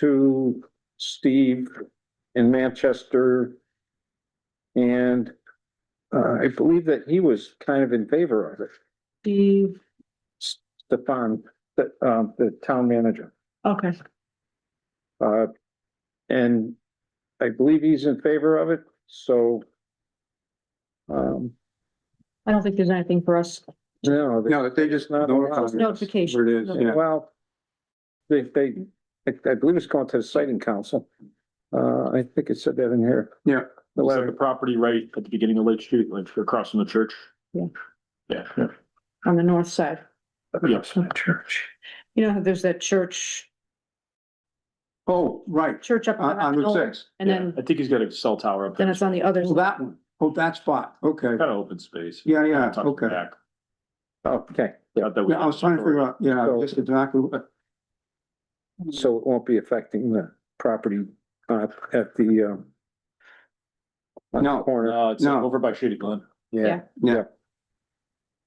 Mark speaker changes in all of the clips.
Speaker 1: to Steve in Manchester. And uh, I believe that he was kind of in favor of it,
Speaker 2: Steve,
Speaker 1: Stefan, the, um, the town manager.
Speaker 2: okay,
Speaker 1: Uh, and I believe he's in favor of it, so. Um,
Speaker 2: I don't think there's anything for us.
Speaker 1: no. they-
Speaker 3: No, they just
Speaker 1: not
Speaker 3: not.
Speaker 1: allowed.
Speaker 2: Notification.
Speaker 3: Where it is, yeah.
Speaker 1: Well, they, they, I I believe it's going to the siting council. Uh, I think it said that in here.
Speaker 3: Yeah.
Speaker 1: The
Speaker 4: It's like
Speaker 1: letter.
Speaker 4: the property right at the beginning of Lake Street, like if you're crossing the church.
Speaker 2: Yeah.
Speaker 4: Yeah.
Speaker 2: on the north side.
Speaker 4: Yes.
Speaker 2: Church. You know, how there's that church,
Speaker 3: Oh, right,
Speaker 2: church up.
Speaker 3: on,
Speaker 2: on
Speaker 3: on
Speaker 2: the
Speaker 3: Route
Speaker 2: hill,
Speaker 3: six.
Speaker 2: And then,
Speaker 4: I think he's got a cell tower up there.
Speaker 2: then it's on the other,
Speaker 3: Oh, that one. Oh, that spot, okay.
Speaker 4: Kind of open space.
Speaker 3: Yeah, yeah,
Speaker 4: Tucked
Speaker 3: okay.
Speaker 4: back.
Speaker 1: Okay,
Speaker 4: Not that we-
Speaker 3: Yeah, I was trying to figure out, yeah,
Speaker 1: So-
Speaker 3: just exactly, what-
Speaker 1: so it won't be affecting the property uh, at the, um, on the
Speaker 3: No.
Speaker 1: corner,
Speaker 4: No, it's
Speaker 3: No.
Speaker 4: over by Shady Glen.
Speaker 1: yeah.
Speaker 2: Yeah.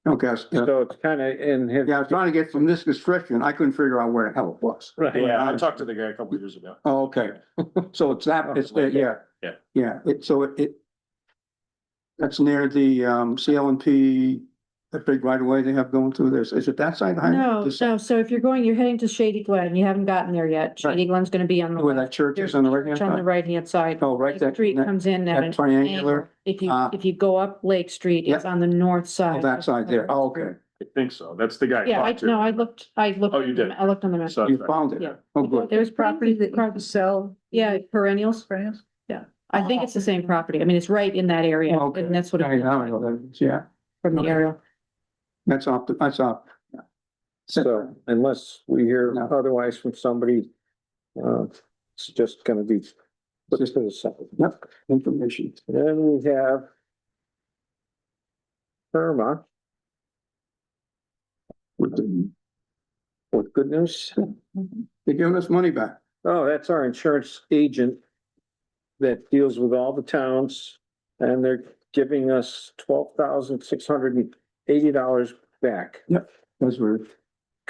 Speaker 3: okay, I was- yeah,
Speaker 1: So it's kind of in his.
Speaker 3: I was trying to get from this description, I couldn't figure out where the hell it was.
Speaker 4: Yeah, I talked to the guy a couple years ago.
Speaker 3: Oh, okay, so it's that, it's, there, yeah.
Speaker 4: Yeah.
Speaker 3: Yeah, it, so it, it. That's near the, um, CLMP, the big right of way they have going through this, is it that side? of the highway?
Speaker 2: no,
Speaker 3: This-
Speaker 2: no, so if you're going, you're heading to Shady Glen, you haven't gotten there yet. Shady Glen's gonna be on the,
Speaker 3: Where that church is on the right hand
Speaker 2: left, on the
Speaker 3: side?
Speaker 2: right hand side.
Speaker 3: Oh, right there,
Speaker 2: Street
Speaker 3: that
Speaker 2: comes in at
Speaker 3: that
Speaker 2: an
Speaker 3: triangular,
Speaker 2: angle. If you,
Speaker 3: Ah.
Speaker 2: if you go up Lake Street, it's on the north
Speaker 3: oh,
Speaker 2: side.
Speaker 3: that side there, oh, okay.
Speaker 4: I think so. That's the guy.
Speaker 2: Yeah, I,
Speaker 4: talked to.
Speaker 2: no, I looked, I looked.
Speaker 4: Oh, you did.
Speaker 2: I looked on the map.
Speaker 4: So-
Speaker 3: You found it?
Speaker 2: Yeah.
Speaker 3: Oh, good.
Speaker 2: There's property that you
Speaker 5: can sell.
Speaker 2: Yeah, perennials.
Speaker 5: Perennials?
Speaker 2: Yeah, I think it's the same property. I mean, it's right in that area
Speaker 3: Oh, Okay.
Speaker 2: and that's what.
Speaker 3: Yeah,
Speaker 2: it-
Speaker 3: yeah, I know that is, Yeah,
Speaker 2: From the
Speaker 3: Okay.
Speaker 2: aerial.
Speaker 3: that's off, the- that's off. yeah.
Speaker 1: So unless we hear
Speaker 3: No.
Speaker 1: otherwise from somebody, uh, it's just gonna be put to the side.
Speaker 3: Yep, information.
Speaker 1: Then we have Irma
Speaker 3: With the-
Speaker 1: with good news.
Speaker 3: They're giving us money back.
Speaker 1: Oh, that's our insurance agent that deals with all the towns and they're giving us twelve thousand six hundred and eighty dollars back.
Speaker 3: Those were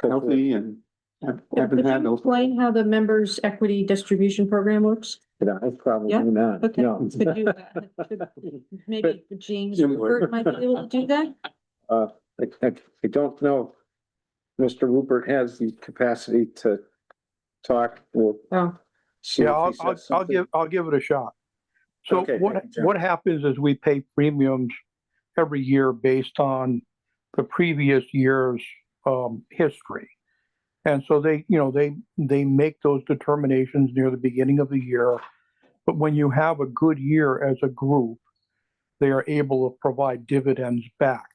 Speaker 3: healthy and have- haven't had those.
Speaker 2: Explain how the members' equity distribution program works.
Speaker 1: No, it's probably
Speaker 2: Yeah,
Speaker 1: not,
Speaker 2: okay.
Speaker 1: no.
Speaker 2: Could you, uh, could- Maybe James Rupert might be able to do that.
Speaker 1: I, I, I don't know. if Mr. Rupert has the capacity to talk or.
Speaker 2: Oh.
Speaker 1: see
Speaker 6: Yeah,
Speaker 1: if he
Speaker 6: I'll,
Speaker 1: says
Speaker 6: I'll, I'll
Speaker 1: something.
Speaker 6: give, I'll give it a shot. So
Speaker 1: Okay,
Speaker 6: what,
Speaker 1: thank you, Jim.
Speaker 6: what happens is we pay premiums every year based on the previous year's, um, history. And so they, you know, they, they make those determinations near the beginning of the year. But when you have a good year as a group, they are able to provide dividends back,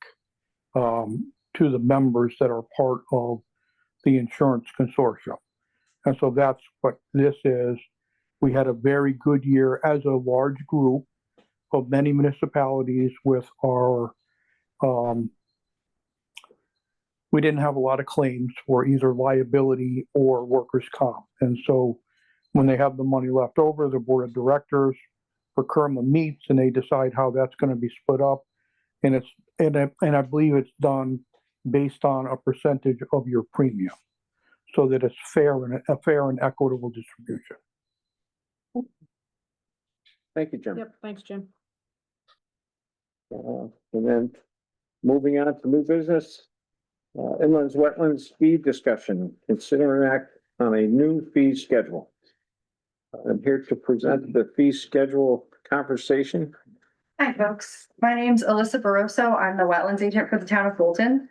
Speaker 6: um, to the members that are part of the insurance consortium. And so that's what this is. We had a very good year as a large group of many municipalities with our, um, we didn't have a lot of claims for either liability or workers' comp. And so when they have the money left over, the board of directors for Kerma meets and they decide how that's going to be split up. And it's, and I, and I believe it's done based on a percentage of your premium so that it's fair and a fair and equitable distribution.
Speaker 1: Thank you, Jim.
Speaker 2: Yep, thanks, Jim.
Speaker 1: Uh, And then moving on to new business. Uh, inlands, wetlands fee discussion, consider an act on a new fee schedule. I'm here to present the fee schedule conversation.
Speaker 5: Hi, folks. My name's Alyssa Baroso. I'm the wetlands agent for the town of Fulton.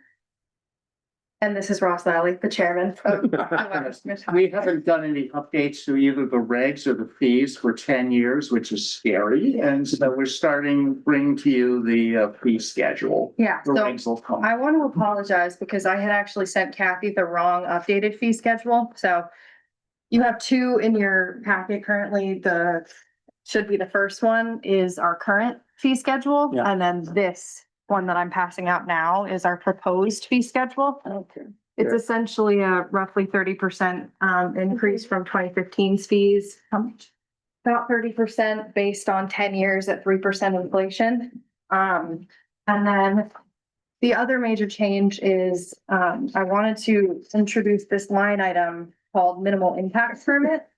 Speaker 5: And this is Ross Lally, the chairman of the Wetlands Commission.
Speaker 7: We haven't done any updates to either the regs or the fees for ten years, which is scary. And so we're starting, bring to you the uh, fee schedule.
Speaker 5: Yeah,
Speaker 7: The
Speaker 5: so
Speaker 7: regs will come.
Speaker 5: I want to apologize because I had actually sent Kathy the wrong updated fee schedule, so. You have two in your packet currently. The, should be the first one is our current fee schedule.
Speaker 3: Yeah.
Speaker 5: And then this one that I'm passing out now is our proposed fee schedule.
Speaker 3: Okay.
Speaker 5: It's essentially a roughly thirty percent um increase from 2015's fees. How much? About thirty percent based on ten years at three percent inflation. Um, and then the other major change is um, I wanted to introduce this line item called minimal impact permit.